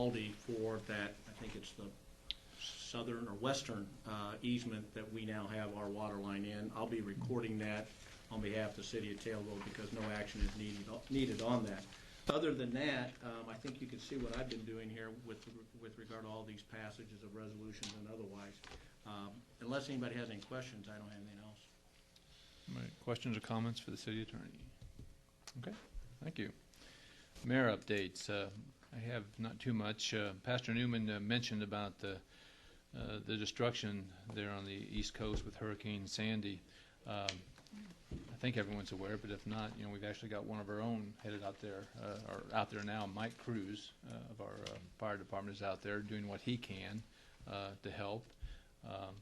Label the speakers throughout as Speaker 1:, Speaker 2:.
Speaker 1: Aldi for that, I think it's the southern or western uh, easement that we now have our water line in. I'll be recording that on behalf of the city of Taylorville because no action is needed, needed on that. Other than that, um, I think you can see what I've been doing here with, with regard to all these passages of resolutions and otherwise. Um, Unless anybody has any questions, I don't have anything else.
Speaker 2: All right, questions or comments for the city attorney? Okay, thank you. Mayor updates, Uh, I have not too much. Uh, Pastor Newman uh, mentioned about the, uh, the destruction there on the east coast with Hurricane Sandy. Um, I think everyone's aware, but if not, you know, we've actually got one of our own headed out there, uh, or out there now, Mike Cruz uh, of our uh, fire department is out there doing what he can uh, to help. Um,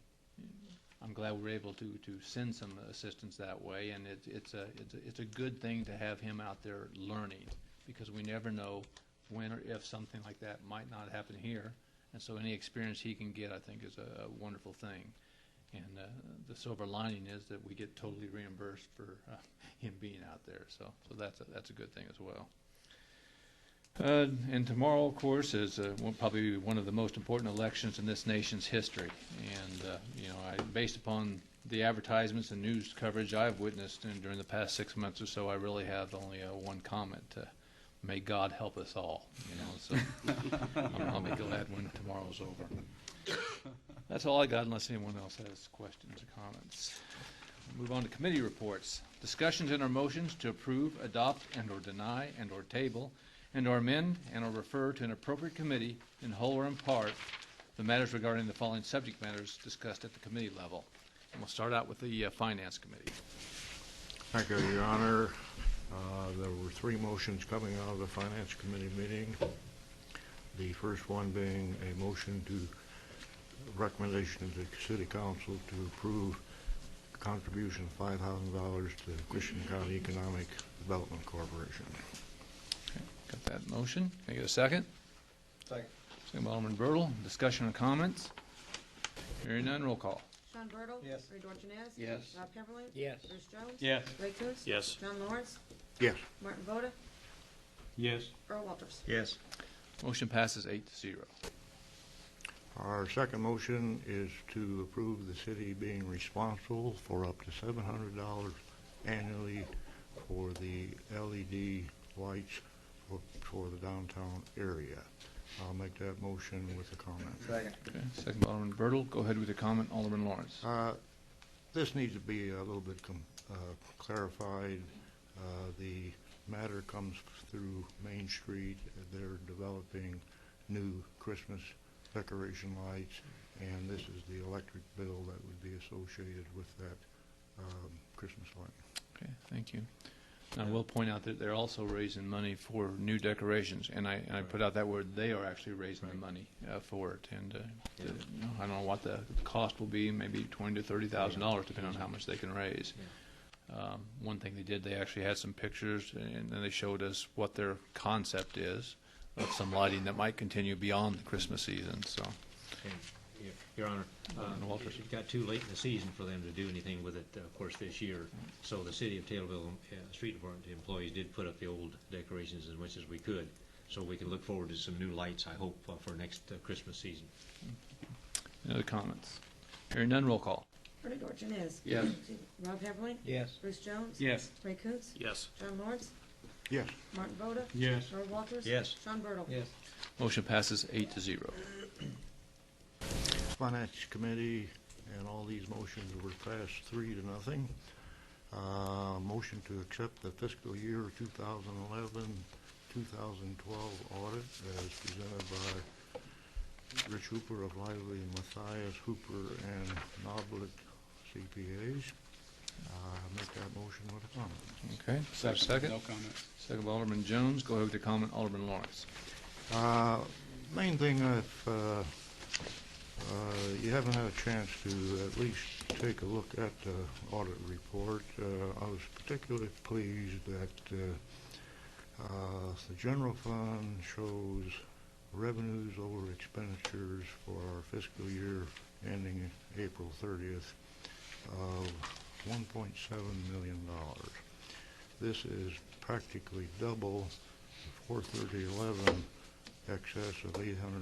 Speaker 2: I'm glad we we're able to, to send some assistance that way, and it's, it's a, it's a, it's a good thing to have him out there learning, because we never know when or if something like that might not happen here, and so any experience he can get, I think, is a a wonderful thing. And uh, the silver lining is that we get totally reimbursed for uh, him being out there, so, so that's, a- that's a good thing as well. Uh, And tomorrow, of course, is uh, one- probably one of the most important elections in this nation's history. And, uh, you know, I, based upon the advertisements and news coverage I've witnessed in- during the past six months or so, I really have only uh, one comment. uh, May God help us all, you know, so I'll I'll be glad when tomorrow's over. That's all I got unless anyone else has questions or comments. Move on to committee reports. Discussions and or motions to approve, adopt, and/or deny, and/or table, and/or amend, and/or refer to an appropriate committee in whole or in part the matters regarding the following subject matters discussed at the committee level. And we'll start out with the uh, Finance Committee.
Speaker 3: Thank you, Your Honor. Uh, There were three motions coming out of the Finance Committee meeting. The first one being a motion to, recommendation to the City Council to approve contribution of $5,000 to Christian County Economic Development Corporation.
Speaker 2: Got that motion? Can I get a second? Second. Second by Alderman Bertle. Discussion or comments? Hearing none, roll call.
Speaker 4: Sean Bertle.
Speaker 5: Yes.
Speaker 4: Ray Dorchenez.
Speaker 5: Yes.
Speaker 4: Rob Heatherling.
Speaker 5: Yes.
Speaker 4: Bruce Jones.
Speaker 1: Yes.
Speaker 4: Ray Coontz.
Speaker 1: Yes.
Speaker 4: John Lawrence.
Speaker 3: Yes.
Speaker 4: Martin Voda.
Speaker 1: Yes.
Speaker 4: Earl Walters.
Speaker 5: Yes.
Speaker 2: Motion passes eight to zero.
Speaker 3: Our second motion is to approve the city being responsible for up to $700 annually for the LED lights for- for the downtown area. I'll make that motion with a comment.
Speaker 5: Second.
Speaker 2: Okay, second by Alderman Bertle. Go ahead with your comment, Alderman Lawrence.
Speaker 3: Uh, This needs to be a little bit com- uh, clarified. Uh, The matter comes through Main Street. They're developing new Christmas decoration lights, and this is the electric bill that would be associated with that um, Christmas light.
Speaker 2: Okay, thank you. And I will point out that they're also raising money for new decorations, and I, and I put out that word, they are actually raising the money uh, for it, and, uh, the- you know, I don't know what the cost will be, maybe twenty to thirty thousand dollars, depending on how much they can raise. Um, One thing they did, they actually had some pictures, and then they showed us what their concept is of some lighting that might continue beyond the Christmas season, so,
Speaker 6: Yeah, Your Honor,
Speaker 2: Alderman
Speaker 6: uh,
Speaker 2: Walters.
Speaker 6: it it got too late in the season for them to do anything with it, of course, this year. So the city of Taylorville, uh, street department employees did put up the old decorations as much as we could. So we can look forward to some new lights, I hope, uh, for next uh, Christmas season.
Speaker 2: any other comments? Hearing none, roll call.
Speaker 4: Ray Dorchenez.
Speaker 5: Yes.
Speaker 4: Rob Heatherling.
Speaker 5: Yes.
Speaker 4: Bruce Jones.
Speaker 5: Yes.
Speaker 4: Ray Coontz.
Speaker 1: Yes.
Speaker 4: John Lawrence.
Speaker 3: Yes.
Speaker 4: Martin Voda.
Speaker 1: Yes.
Speaker 4: Earl Walters.
Speaker 6: Yes.
Speaker 4: Sean Bertle.
Speaker 5: Yes.
Speaker 2: Motion passes eight to zero.
Speaker 3: Finance Committee, and all these motions were passed three to nothing. Uh, Motion to accept the fiscal year 2011-2012 audit as presented by Rich Hooper of Lively, and Matthias Hooper, and Noblet CPAs. Uh, Make that motion with a comment.
Speaker 2: Okay, is there a second?
Speaker 5: No comments.
Speaker 2: Second by Alderman Jones. Go ahead with your comment, Alderman Lawrence.
Speaker 3: Uh, Main thing, if uh, uh, you haven't had a chance to at least take a look at the audit report, uh, I was particularly pleased that uh, uh, the general fund shows revenues over expenditures for our fiscal year ending April 30th of $1.7 million. This is practically double the 43011 excess of eight hundred